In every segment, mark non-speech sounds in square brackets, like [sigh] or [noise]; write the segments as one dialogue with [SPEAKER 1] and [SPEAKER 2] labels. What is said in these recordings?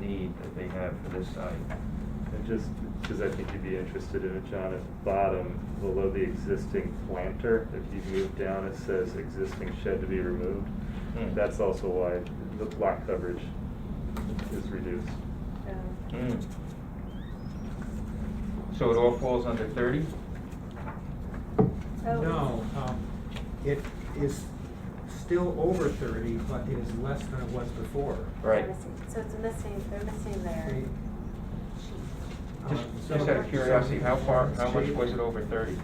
[SPEAKER 1] that they have for this site.
[SPEAKER 2] And just, because I think you'd be interested in it, John, at the bottom, below the existing planter, if you move down, it says existing shed to be removed.
[SPEAKER 1] Hmm.
[SPEAKER 2] That's also why the lot coverage is reduced.
[SPEAKER 3] Um,
[SPEAKER 1] Hmm. So it all falls under thirty?
[SPEAKER 3] oh,
[SPEAKER 4] No, um, it is still over thirty, but it is less than it was before.
[SPEAKER 1] Right.
[SPEAKER 3] So it's missing, they're missing their
[SPEAKER 4] See,
[SPEAKER 3] sheet.
[SPEAKER 4] um,
[SPEAKER 1] Just,
[SPEAKER 4] so-
[SPEAKER 1] just out of curiosity, how far, how much was it over thirty?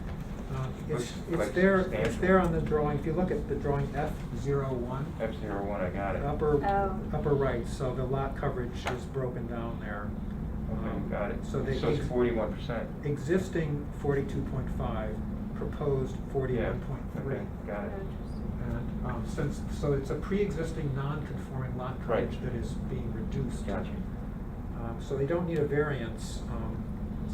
[SPEAKER 4] Uh, It's,
[SPEAKER 1] Looks
[SPEAKER 4] it's there, it's
[SPEAKER 1] substantial.
[SPEAKER 4] there on the drawing, if you look at the drawing F zero one,
[SPEAKER 1] F zero one, I got it.
[SPEAKER 4] upper,
[SPEAKER 3] Oh.
[SPEAKER 4] upper right, so the lot coverage is broken down there. Um,
[SPEAKER 1] Okay, got it.
[SPEAKER 4] So the
[SPEAKER 1] So it's
[SPEAKER 4] ex-
[SPEAKER 1] forty-one percent?
[SPEAKER 4] Existing forty-two point five, proposed forty-one point three.
[SPEAKER 1] Okay, got it.
[SPEAKER 3] Interesting.
[SPEAKER 4] And, um, since, so it's a pre-existing non-conforming lot coverage
[SPEAKER 1] Right.
[SPEAKER 4] that is being reduced.
[SPEAKER 1] Gotcha.
[SPEAKER 4] Um, so they don't need a variance, um,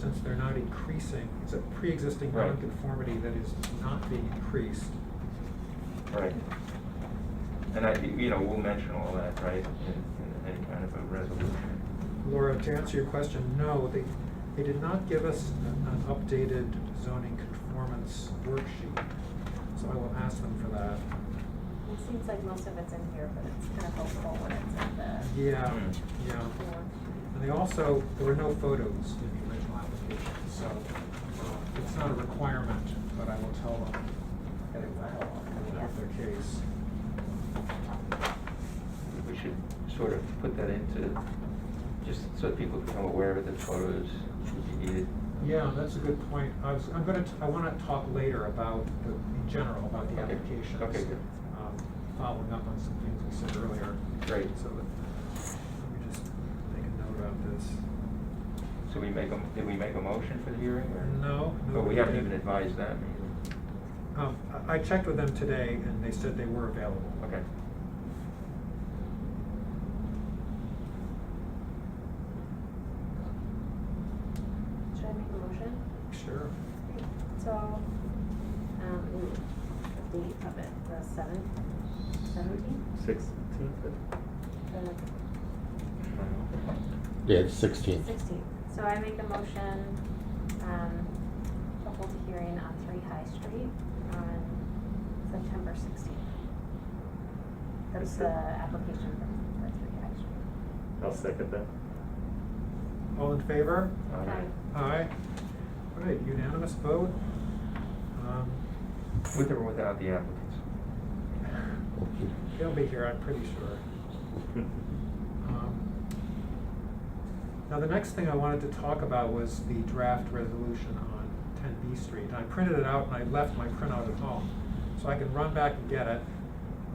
[SPEAKER 4] since they're not increasing, it's a pre-existing
[SPEAKER 1] Right.
[SPEAKER 4] non-conformity that is not being increased.
[SPEAKER 1] Right. And I, you know, we'll mention all that, right, in, in any kind of a resolution.
[SPEAKER 4] Laura, to answer your question, no, they, they did not give us an an updated zoning conformance worksheet, so I will ask them for that.
[SPEAKER 3] It seems like most of it's in here, but it's kind of helpful when it's in the.
[SPEAKER 4] Yeah,
[SPEAKER 1] Mm.
[SPEAKER 4] yeah,
[SPEAKER 3] form.
[SPEAKER 4] and they also, there were no photos in the original application, so, uh, it's not a requirement, but I will tell them that it will help their case.
[SPEAKER 1] We should sort of put that into, just so people become aware of the photos would be needed.
[SPEAKER 4] Yeah, that's a good point. I was, I'm gonna, t- I wanna talk later about the, in general, about the
[SPEAKER 1] Okay.
[SPEAKER 4] applications.
[SPEAKER 1] Okay, good.
[SPEAKER 4] um, Following up on some things we said earlier.
[SPEAKER 1] Great.
[SPEAKER 4] So let let me just make a note about this.
[SPEAKER 1] So we make a, did we make a motion for the hearing or?
[SPEAKER 4] No, no,
[SPEAKER 1] But we
[SPEAKER 4] we
[SPEAKER 1] haven't
[SPEAKER 4] didn't.
[SPEAKER 1] even advised them. either.
[SPEAKER 4] Um, I, I checked with them today and they said they were available.
[SPEAKER 1] Okay.
[SPEAKER 3] Should I make a motion?
[SPEAKER 4] Sure.
[SPEAKER 3] So, um, ooh, the date of it, the seventh, seventeenth,
[SPEAKER 2] Sixteenth?
[SPEAKER 3] the
[SPEAKER 5] Yeah, the sixteenth.
[SPEAKER 3] sixteenth. So I make a motion, um, to hold a hearing on Three High Street on September sixteenth. That's
[SPEAKER 2] Yes,
[SPEAKER 3] uh, the
[SPEAKER 2] sir.
[SPEAKER 3] application for, for Three High Street.
[SPEAKER 2] I'll second that. [laughs]
[SPEAKER 4] All in favor?
[SPEAKER 1] All right.
[SPEAKER 4] Aye. All right, unanimous vote. Um,
[SPEAKER 1] With or without the applicants?
[SPEAKER 4] They'll be here, I'm pretty sure. Um, Now, the next thing I wanted to talk about was the draft resolution on ten B Street. I printed it out and I left my printout at home, so I can run back and get it.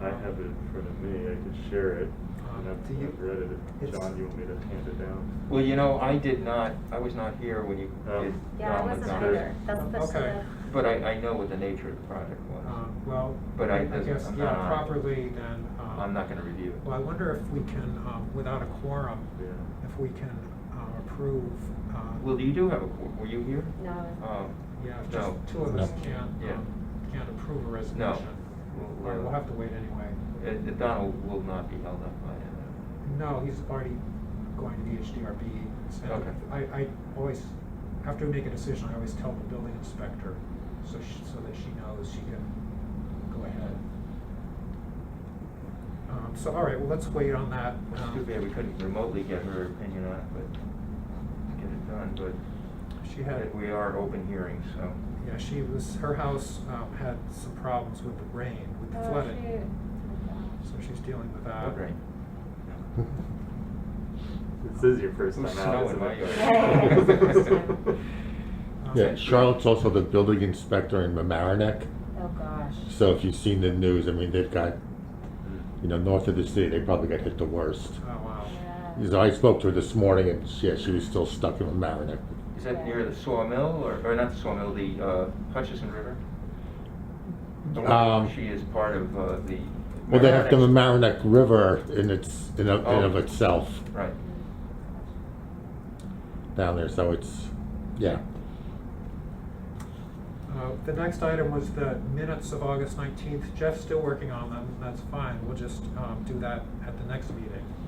[SPEAKER 2] I have it in front of me, I could share it, and
[SPEAKER 4] Uh,
[SPEAKER 2] I've
[SPEAKER 4] do you-
[SPEAKER 2] I've read it.
[SPEAKER 4] it's-
[SPEAKER 2] John, you want me to hand it down?
[SPEAKER 1] Well, you know, I did not, I was not here when you
[SPEAKER 2] Oh.
[SPEAKER 1] did.
[SPEAKER 3] Yeah, I
[SPEAKER 1] Donald
[SPEAKER 3] wasn't
[SPEAKER 1] Donald.
[SPEAKER 3] either. That's the.
[SPEAKER 4] Okay.
[SPEAKER 1] But I, I know what the nature of the project was.
[SPEAKER 4] Um, Well,
[SPEAKER 1] But I
[SPEAKER 4] I
[SPEAKER 1] doesn't-
[SPEAKER 4] guess,
[SPEAKER 1] I'm
[SPEAKER 4] yeah,
[SPEAKER 1] not-
[SPEAKER 4] properly then. um,
[SPEAKER 1] I'm not gonna review
[SPEAKER 4] Well, I
[SPEAKER 1] it.
[SPEAKER 4] wonder if we can, um, without a quorum,
[SPEAKER 2] Yeah.
[SPEAKER 4] if we can um, approve. um,
[SPEAKER 1] Well, you do have a, qu- were you here?
[SPEAKER 3] No.
[SPEAKER 1] Oh.
[SPEAKER 4] Yeah, just
[SPEAKER 1] No.
[SPEAKER 4] two of us
[SPEAKER 5] No.
[SPEAKER 4] can't,
[SPEAKER 1] Yeah.
[SPEAKER 4] um, can't approve a resolution.
[SPEAKER 1] No.
[SPEAKER 4] All right, we'll have to wait anyway.
[SPEAKER 1] Uh, uh, Donald will not be held up by uh, it.
[SPEAKER 4] No, he's already going to the HDRB. and
[SPEAKER 1] Okay.
[SPEAKER 4] I, I always, after we make a decision, I always tell the building inspector, so she, so that she knows she can go ahead. Um, so, all right, well, let's wait on that.
[SPEAKER 1] Well,
[SPEAKER 4] Um,
[SPEAKER 1] It's too bad we couldn't remotely get her opinion on it, but get it done, but
[SPEAKER 4] Um, She had,
[SPEAKER 1] but we are open hearings, so.
[SPEAKER 4] yeah, she was, her house, um, had some problems with the rain, with the
[SPEAKER 3] Oh,
[SPEAKER 4] flooding.
[SPEAKER 3] shoot.
[SPEAKER 4] So she's dealing with that.
[SPEAKER 1] Good rain.
[SPEAKER 2] This is your first time
[SPEAKER 1] Who's
[SPEAKER 2] out,
[SPEAKER 1] snowing my
[SPEAKER 2] isn't [laughs] it?
[SPEAKER 1] yard?
[SPEAKER 3] [laughs]
[SPEAKER 4] Um,
[SPEAKER 5] Yeah, Charlotte's also the building inspector in Mamaroneck.
[SPEAKER 3] Oh, gosh.
[SPEAKER 5] So if you've seen the news, I mean, they've got, you know, north of the city, they probably got hit the worst.
[SPEAKER 4] Oh, wow.
[SPEAKER 3] Yeah.
[SPEAKER 5] So I spoke to her this morning and she- yeah, she was still stuck in Mamaroneck.
[SPEAKER 1] Is that near the sawmill, or, or not the sawmill, the uh, Hutchison River? The one
[SPEAKER 5] Um,
[SPEAKER 1] She is part of uh, the.
[SPEAKER 5] Well, they have the
[SPEAKER 1] Mamaroneck-
[SPEAKER 5] Mamaroneck River in its, in of, in of
[SPEAKER 1] Oh.
[SPEAKER 5] itself
[SPEAKER 1] Right.
[SPEAKER 3] Mm.
[SPEAKER 5] down there, so it's, yeah.
[SPEAKER 4] Uh, The next item was the minutes of August nineteenth. Jeff's still working on them, that's fine, we'll just um, do that at the next meeting. Um,